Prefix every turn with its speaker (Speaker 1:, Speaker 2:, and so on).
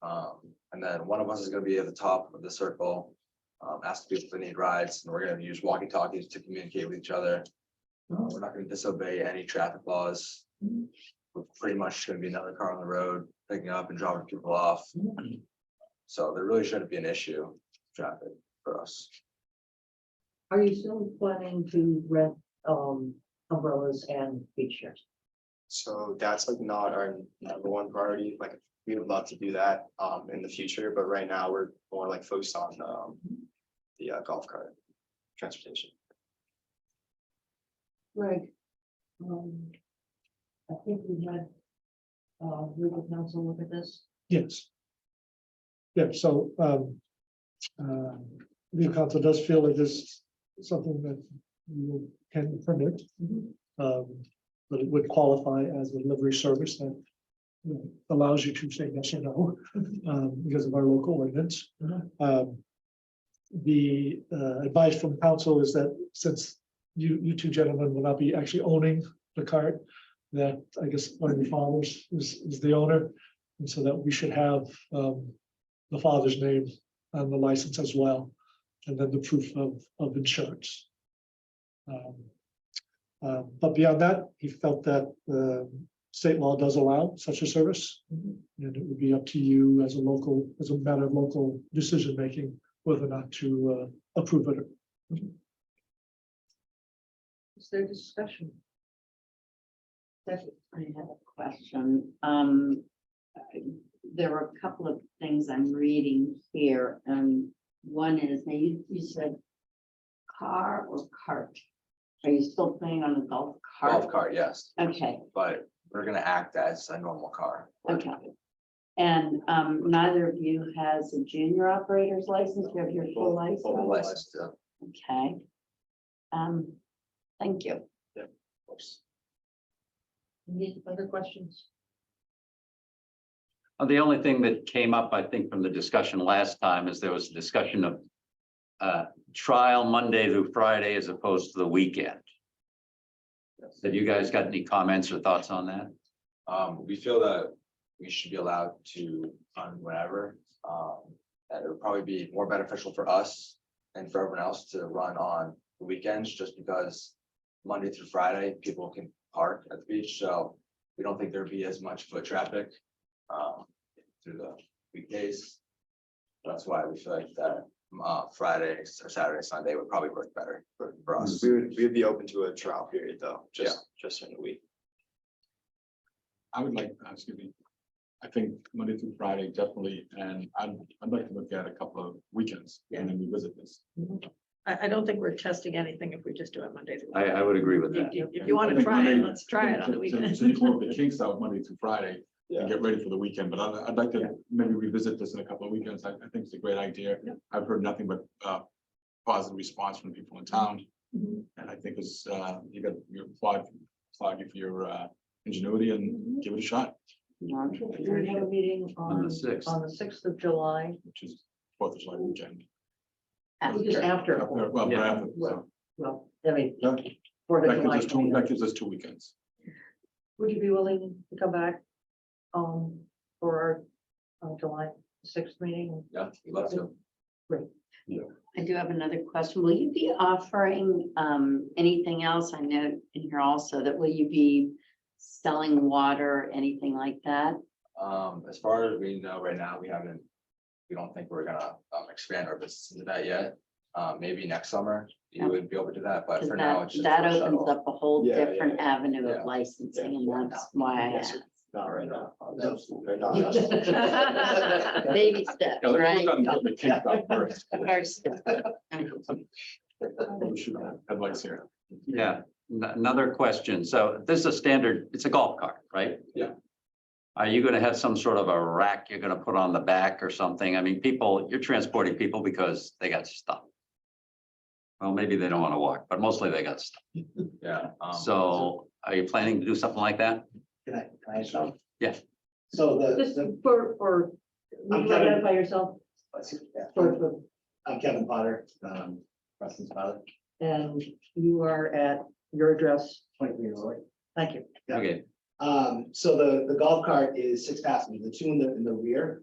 Speaker 1: Um, And then one of us is gonna be at the top of the circle, um, ask people if they need rides, and we're gonna use walkie talkies to communicate with each other. Uh, we're not gonna disobey any traffic laws. We're pretty much gonna be another car on the road, picking up and dropping people off. So there really shouldn't be an issue, traffic for us.
Speaker 2: Are you still planning to rent um umbrellas and beach chairs?
Speaker 3: So that's like not our number one priority, like we would love to do that um in the future, but right now we're more like focused on um. The uh, golf cart transportation.
Speaker 2: Greg. Um. I think we had. Uh, legal counsel look at this.
Speaker 4: Yes. Yeah, so, um, uh, the council does feel it is something that you can permit.
Speaker 2: Mhm.
Speaker 4: Um, but it would qualify as a delivery service that you know, allows you to say yes or no, um, because of our local ordinance.
Speaker 2: Mhm.
Speaker 4: Um, the, uh, advice from council is that since you, you two gentlemen will not be actually owning the cart, that I guess one of the fathers is, is the owner. And so that we should have um the father's name on the license as well, and then the proof of of insurance. Um, uh, but beyond that, he felt that the state law does allow such a service. And it would be up to you as a local, as a matter of local decision making, whether or not to uh approve it.
Speaker 2: Is there discussion? That's
Speaker 5: I have a question. Um, there are a couple of things I'm reading here, and one is, now you, you said car or cart? Are you still playing on a golf
Speaker 1: Golf
Speaker 5: cart?
Speaker 1: cart, yes,
Speaker 5: Okay,
Speaker 1: but we're gonna act as a normal car.
Speaker 5: okay. And, um, neither of you has a junior operator's license, you have your full
Speaker 1: Full
Speaker 5: license,
Speaker 1: license, yeah, of
Speaker 5: okay? Um, thank you.
Speaker 1: course.
Speaker 2: Any other questions?
Speaker 6: Uh, The only thing that came up, I think, from the discussion last time is there was a discussion of uh, trial Monday through Friday as opposed to the weekend.
Speaker 1: uh,
Speaker 6: Have you guys got any comments or thoughts on that?
Speaker 1: Um, we feel that we should be allowed to fund whatever, um, that it would probably be more beneficial for us. And for everyone else to run on the weekends, just because Monday through Friday, people can park at the beach, so. We don't think there'd be as much foot traffic, um, through the weekdays. That's why we feel like that, uh, Friday or Saturday, Sunday would probably work better for for us.
Speaker 3: We would, we would be open to a trial period though, just, just in a week.
Speaker 7: I would like, uh, excuse me, I think Monday through Friday definitely, and I'd, I'd like to look at a couple of weekends and then revisit this.
Speaker 8: I, I don't think we're testing anything if we just do it Monday. through
Speaker 6: I,
Speaker 8: Friday.
Speaker 6: I would agree with
Speaker 8: If
Speaker 6: that.
Speaker 8: you, if you want to
Speaker 7: I think
Speaker 8: try it,
Speaker 7: Monday-
Speaker 8: let's try it on the
Speaker 7: to- to-
Speaker 8: weekend.
Speaker 7: To work the kinks out Monday through Friday
Speaker 3: Yeah.
Speaker 7: and get ready for the weekend, but I'd, I'd like to maybe revisit this in a couple of weekends. I, I think it's a great idea.
Speaker 8: Yep.
Speaker 7: I've heard nothing but, uh, positive response from people in town.
Speaker 8: Mhm.
Speaker 7: And I think it's, uh, you got, you applaud, applaud you for your, uh, ingenuity and give it a shot,
Speaker 5: No, I'm
Speaker 2: We're gonna have a meeting
Speaker 6: On
Speaker 2: on
Speaker 6: the sixth.
Speaker 2: on the sixth of July,
Speaker 7: which is Fourth of July weekend.
Speaker 2: just after,
Speaker 7: Well, but
Speaker 6: Yeah.
Speaker 7: after, so,
Speaker 2: Well, well, I mean,
Speaker 7: yeah.
Speaker 2: Fourth of
Speaker 7: That gives
Speaker 2: July.
Speaker 7: us two,
Speaker 2: coming up.
Speaker 7: that gives us two weekends.
Speaker 2: Would you be willing to come back? Um, for our uh, July sixth meeting?
Speaker 1: Yeah, we'd love to.
Speaker 5: I do have another question. Will you be offering um anything else? I know in here also that will you be selling water, anything like that?
Speaker 1: Um, as far as we know right now, we haven't, we don't think we're gonna um expand our business into that yet. Uh, maybe next summer, you would be open to that, but
Speaker 5: Because
Speaker 1: for now,
Speaker 5: that
Speaker 1: it's just.
Speaker 5: that
Speaker 1: a
Speaker 5: opens
Speaker 1: shuttle.
Speaker 5: up a whole
Speaker 3: Yeah, yeah,
Speaker 5: different avenue
Speaker 1: Yeah.
Speaker 5: of licensing
Speaker 3: Yeah.
Speaker 5: and that's why I
Speaker 3: Yes.
Speaker 5: asked.
Speaker 3: Not right now.
Speaker 1: No.
Speaker 3: They're not us.
Speaker 5: Baby steps,
Speaker 7: Yeah, let's
Speaker 5: right?
Speaker 7: work on getting the kinks out first.
Speaker 5: First step.
Speaker 7: We should have Headlights here.
Speaker 6: Yeah, N- another question. So this is a standard, it's a golf cart, right?
Speaker 1: Yeah.
Speaker 6: Are you gonna have some sort of a rack you're gonna put on the back or something? I mean, people, you're transporting people because they got stuff. Well, maybe they don't wanna walk, but mostly they got stuff.
Speaker 1: Yeah. um,
Speaker 6: So are you planning to do something like that?
Speaker 9: Can I, can I ask something?
Speaker 6: Yeah.
Speaker 9: So the,
Speaker 2: Just
Speaker 9: the,
Speaker 2: for, for, will
Speaker 9: I'm
Speaker 2: you
Speaker 9: trying to-
Speaker 2: identify yourself
Speaker 9: excuse me,
Speaker 2: for, for,
Speaker 9: I'm Kevin Potter, um, Preston's father,
Speaker 2: and you are at your address.
Speaker 9: twenty-three years old.
Speaker 2: Thank you.
Speaker 9: Yeah.
Speaker 6: Okay,
Speaker 9: Um, so the, the golf cart is six passengers, the two in the, in the rear